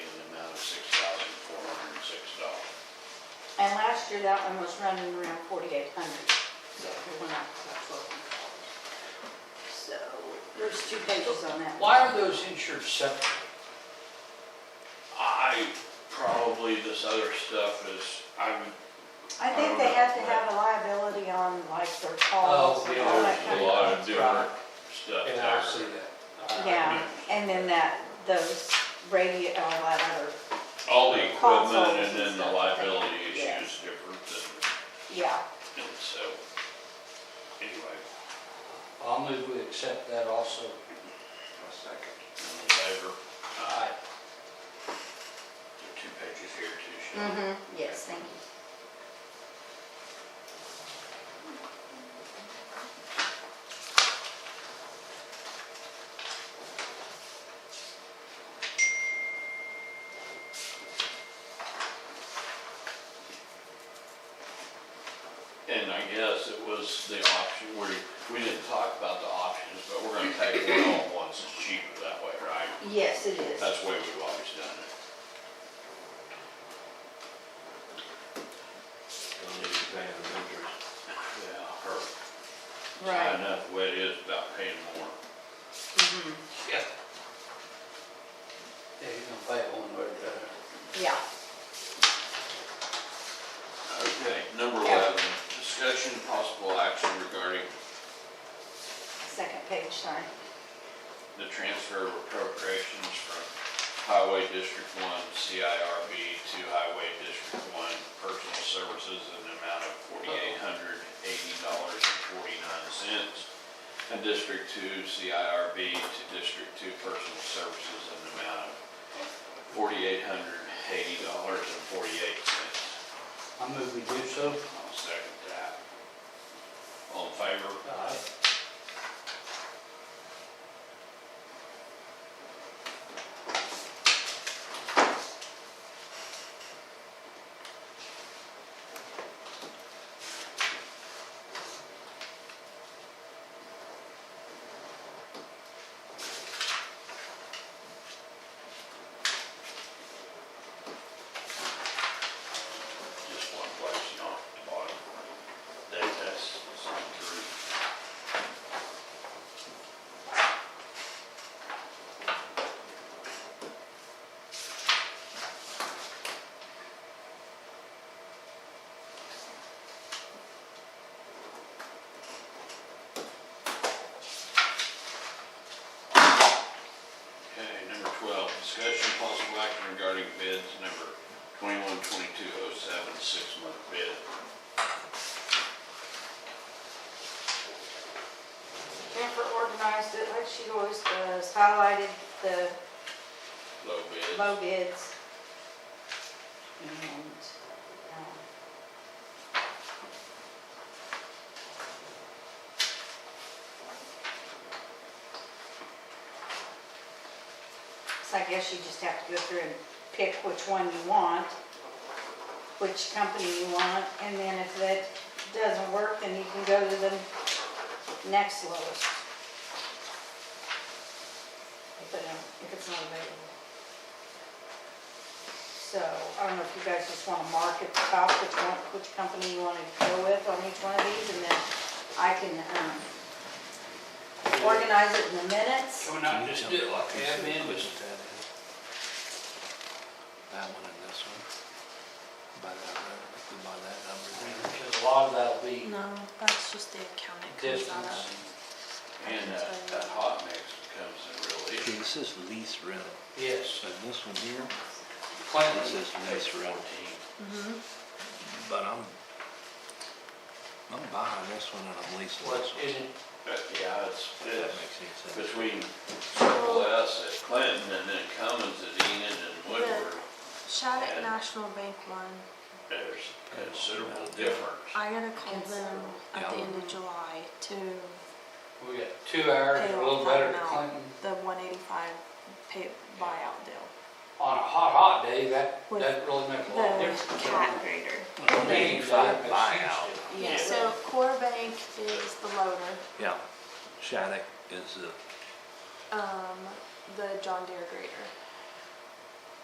last year, that one was running around forty-eight hundred, so it went up about twelve hundred dollars. So, there's two pages on that. Why are those insured separate? I, probably this other stuff is, I'm, I think they have to have a liability on like their calls Oh, and yeah. all that there's kind a of. lot of different Right. stuff And I see there. that. All right. Yeah, and then that, those radio, all that other, All the Consoles equipment and and then the stuff. liability issue Yeah. is different yeah. than, and so, anyway. I'll move we accept that also. My second. In favor, All right. there are two pages here too, Shelley. Mm-hmm, yes, thank you. Mm-hmm. And I guess it was the option, we, we didn't talk about the options, but we're gonna take one on once, it's cheaper that way, right? Yes, it is. That's the way we've always done it. Don't need to pay the renters. Yeah, or, it's high Right. enough the way it is about paying more. Mhm. Yeah. Yeah, you're gonna pay it one way or the other. Yeah, Okay, number Yeah. eleven, discussion and possible action regarding second page, sorry. the transfer of appropriations from Highway District One, CIRB, to Highway District One Personal Services in the amount of forty-eight hundred eighty dollars and forty-nine cents. And District Two, CIRB, to District Two Personal Services in the amount of forty-eight hundred eighty dollars and forty-eight cents. I move we do so. I'll second that. All in favor? All right. Just one place, you know, at the bottom. That, that's signed through. Okay, number twelve, discussion of possible action regarding bids number twenty-one, twenty-two, oh seven, six-month bid. Jennifer organized it like she always does, highlighted the Low bid. low bids. And, um, So I guess you just have to go through and pick which one you want, which company you want, and then if that doesn't work, then you can go to the next lowest. If it don't- if it's not available. So, I don't know if you guys just wanna mark at the top which one, which company you wanna go with on each one of these, and then I can, um, organize it in the minutes. Can we not just do it like admin, just That one and this one. By that, number, by that number there. Because a lot of that'll be No, that's just the accounting comes out distance. of. And that, that hot mix becomes a real Okay, issue. this is lease rental, Yes, and this one here, Clinton this is lease rental. But I'm, I'm buying this one and I'm leasing was, this one. isn't, But yeah, it's, If that it's makes any sense. between Circle S at Clinton and then Cummins at Enid and Woodward, Shattuck National Bank one, there's considerable difference. I gotta call them at the Yeah. end of July to we got two hours, a little better than Clinton. the one eighty-five pay buyout deal. On a hot, hot day, that With doesn't really make a lot of difference. The cat grader. Eighty-five buyout. Yeah, so Core Bank is the loader, Yeah, Shattuck is the, um, the John Deere grader.